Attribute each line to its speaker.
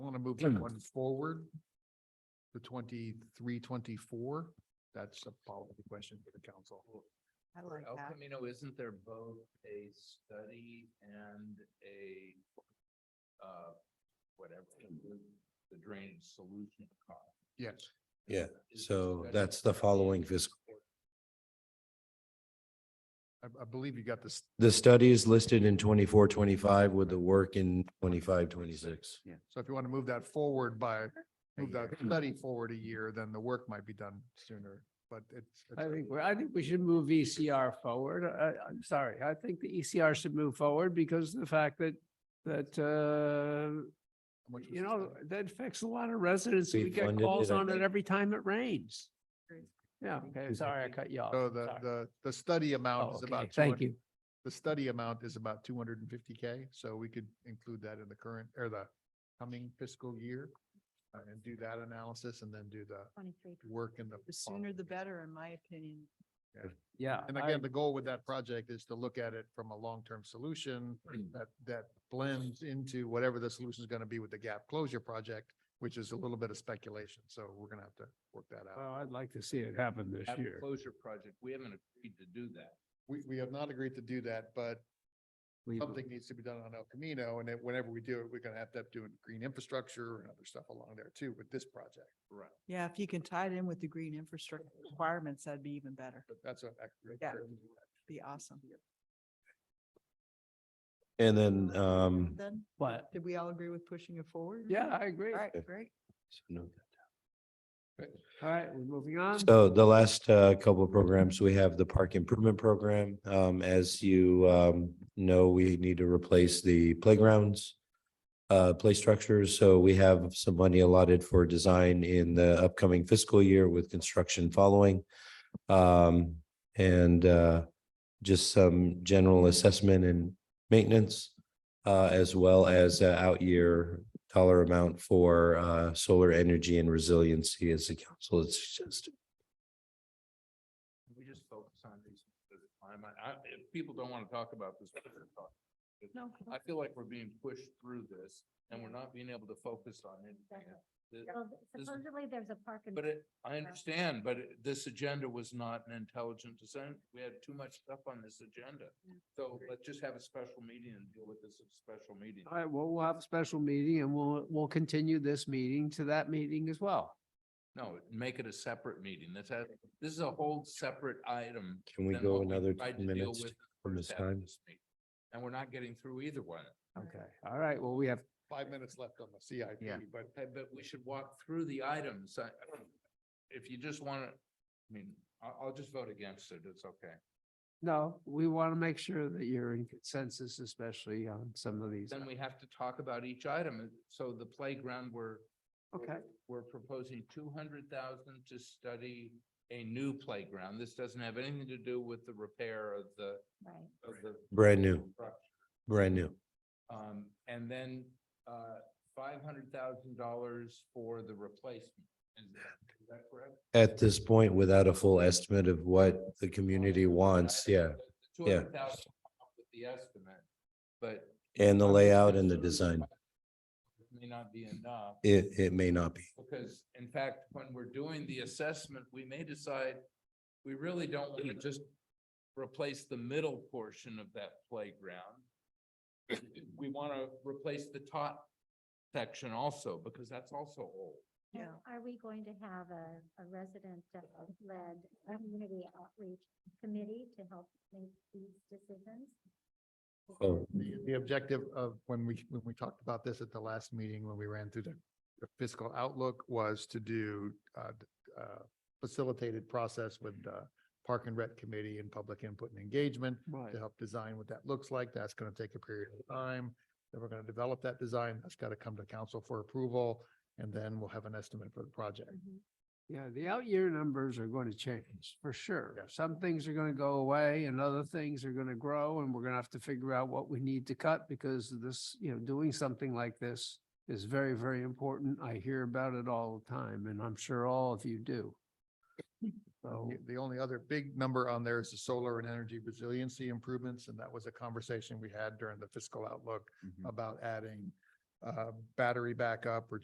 Speaker 1: move
Speaker 2: Mm.
Speaker 1: that one forward. The twenty-three, twenty-four, that's a policy question for the council.
Speaker 3: I like
Speaker 4: El
Speaker 3: that.
Speaker 4: Camino, isn't there both a study and a, uh, whatever, the drainage solution cost?
Speaker 1: Yes,
Speaker 5: Yeah,
Speaker 4: Is the
Speaker 5: so
Speaker 4: study-
Speaker 5: that's the following fiscal.
Speaker 1: I, I believe you got this,
Speaker 5: The study is listed in twenty-four, twenty-five with the work in twenty-five, twenty-six.
Speaker 1: so if you want to move that forward by, move that study forward a year, then the work might be done sooner, but it's.
Speaker 2: I think, we- I think we should move ECR forward. I, I'm sorry. I think the ECR should move forward because of the fact that, that, uh,
Speaker 1: How much was
Speaker 2: you
Speaker 1: the
Speaker 2: know,
Speaker 1: study?
Speaker 2: that affects a lot of residents.
Speaker 5: We
Speaker 2: We get
Speaker 5: funded it,
Speaker 2: calls
Speaker 5: I
Speaker 2: on it
Speaker 5: think.
Speaker 2: every time it rains.
Speaker 3: Great.
Speaker 2: Yeah, okay, sorry, I cut you off.
Speaker 1: So the,
Speaker 2: uh, Sorry.
Speaker 1: the, the study amount
Speaker 2: Oh,
Speaker 1: is
Speaker 2: okay,
Speaker 1: about.
Speaker 2: thank
Speaker 1: 200
Speaker 2: you.
Speaker 1: The study amount is about two hundred and fifty K, so we could include that in the current, or the coming fiscal year. uh, And do that analysis and then do the
Speaker 3: Twenty-three.
Speaker 1: work in the.
Speaker 3: The sooner the
Speaker 1: following year.
Speaker 3: better, in my opinion.
Speaker 2: Yeah.
Speaker 1: And
Speaker 2: I-
Speaker 1: again, the goal with that project is to look at it from a long-term solution that, that blends into whatever the solution is going to be with the gap closure project, which is a little bit of speculation. So we're going to have to work that out.
Speaker 2: Well, I'd like to see it happen this
Speaker 4: That
Speaker 2: year.
Speaker 4: closure project, we haven't agreed to do that.
Speaker 1: We, we have not agreed to do that, but
Speaker 2: We-
Speaker 1: something needs to be done on El Camino. And then whenever we do it, we're going to have to do green infrastructure and other stuff along there too with this project.
Speaker 4: Right.
Speaker 3: Yeah, if you can tie it in with the green infrastructure requirements, that'd be even better.
Speaker 1: But that's a.
Speaker 3: Yeah. Be awesome.
Speaker 5: And then, um,
Speaker 3: Then,
Speaker 2: What?
Speaker 3: did we all agree with pushing it forward?
Speaker 2: Yeah, I agree.
Speaker 3: All
Speaker 2: All
Speaker 3: right, great.
Speaker 2: right, we're moving on.
Speaker 5: So the last uh, couple of programs, we have the park improvement program. Um, As you um, know, we need to replace the playgrounds, uh, play structures. So we have some money allotted for design in the upcoming fiscal year with construction following. Um, And uh, just some general assessment and maintenance, uh, as well as uh, out-year dollar amount for uh, solar energy and resiliency as the council has suggested.
Speaker 4: Can We just focus on these. at a time? I, I- if people don't want to talk about this. we can talk.
Speaker 3: No.
Speaker 4: I feel like we're being pushed through this and we're not being able to focus on anything.
Speaker 6: Exactly.
Speaker 4: The-
Speaker 6: Well,
Speaker 4: this-
Speaker 6: Supposedly, there's a park and
Speaker 4: But it, I understand, but it- this agenda was not an intelligent design. We had too much stuff on this agenda. So let's just have a special meeting and deal with this at a special meeting.
Speaker 2: All right, well, we'll have a special meeting and we'll, we'll continue this meeting to that meeting as well.
Speaker 4: No, make it a separate meeting. That's, a- this is a whole separate item.
Speaker 5: Can we
Speaker 4: than
Speaker 5: go
Speaker 4: what
Speaker 5: another
Speaker 4: tried
Speaker 5: ten
Speaker 4: to deal
Speaker 5: minutes
Speaker 4: with
Speaker 5: from this
Speaker 4: first half of
Speaker 5: time?
Speaker 4: this meeting. And we're not getting through either one.
Speaker 2: Okay, all right, well, we have,
Speaker 1: Five minutes left on the
Speaker 2: Yeah.
Speaker 1: CIP, but
Speaker 4: Hey, But we should walk through the items. I- If you just want to, I mean, I'll, I'll just vote against it. It's okay.
Speaker 2: no, we want to make sure that you're in consensus, especially on some of these.
Speaker 4: Then we have to talk about each item. So the playground, we're
Speaker 2: Okay,
Speaker 4: we're proposing two hundred thousand to study a new playground. This doesn't have anything to do with the repair of the,
Speaker 6: right.
Speaker 4: of the.
Speaker 5: Brand new,
Speaker 4: structure.
Speaker 5: brand new.
Speaker 4: Um, and then, uh, five hundred thousand dollars for the replacement. Is that, is that correct?
Speaker 5: At this point, without a full estimate of what the community
Speaker 4: Uh,
Speaker 5: wants, yeah,
Speaker 4: Two
Speaker 5: yeah.
Speaker 4: hundred thousand with the estimate, but.
Speaker 5: and the
Speaker 4: I'm
Speaker 5: layout and the
Speaker 4: concerned
Speaker 5: design,
Speaker 4: it May not be enough.
Speaker 5: it, it may not be.
Speaker 4: Because in fact, when we're doing the assessment, we may decide we really don't want to just replace the middle portion of that playground. We want to replace the top section also because that's also old.
Speaker 6: And
Speaker 3: Yeah.
Speaker 6: Are we going to have a, a resident-led community outreach committee to help make these decisions?
Speaker 5: Oh,
Speaker 1: the, the objective of when we, when we talked about this at the last meeting, when we ran through the the fiscal outlook was to do, uh, d- uh, facilitated process with the Park and Rec Committee and public input and engagement
Speaker 2: right.
Speaker 1: to help design what that looks like. That's going to take a period of time. Then we're going to develop that design. That's got to come to council for approval. And then we'll have an estimate for the project.
Speaker 2: Yeah, the out year numbers are going to change for sure.
Speaker 1: Yeah.
Speaker 2: Some things are going to go away and other things are going to grow and we're going to have to figure out what we need to cut because this, you know, doing something like this is very, very important. I hear about it all the time and I'm sure all of you do. So,
Speaker 1: The- The only other big number on there is the solar and energy resiliency improvements, and that was a conversation we had during the fiscal outlook about adding uh, battery backup or